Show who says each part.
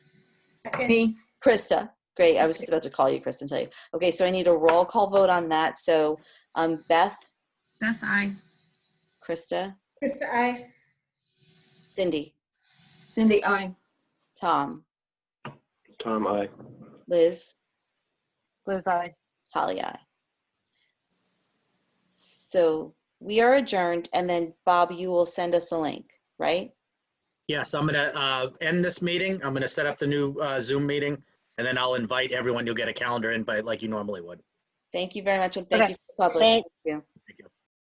Speaker 1: Stephanie?
Speaker 2: Krista, great. I was just about to call you, Krista, and tell you. Okay, so I need a roll call vote on that. So um, Beth,
Speaker 3: Beth, I.
Speaker 2: Krista,
Speaker 1: Krista, I.
Speaker 2: Cindy,
Speaker 1: Cindy, I.
Speaker 2: Tom,
Speaker 4: Tom, I.
Speaker 2: Liz,
Speaker 5: Liz, I.
Speaker 2: Holly, I. So we are adjourned, and then Bob, you will send us a link, right?
Speaker 6: Yes, I'm going to end this meeting. I'm going to set up the new uh, Zoom meeting, and then I'll invite everyone. You'll get a calendar invite like you normally would.
Speaker 2: Thank you very much, and thank
Speaker 5: Okay.
Speaker 2: you to the public.
Speaker 5: Thank-
Speaker 2: Thank you.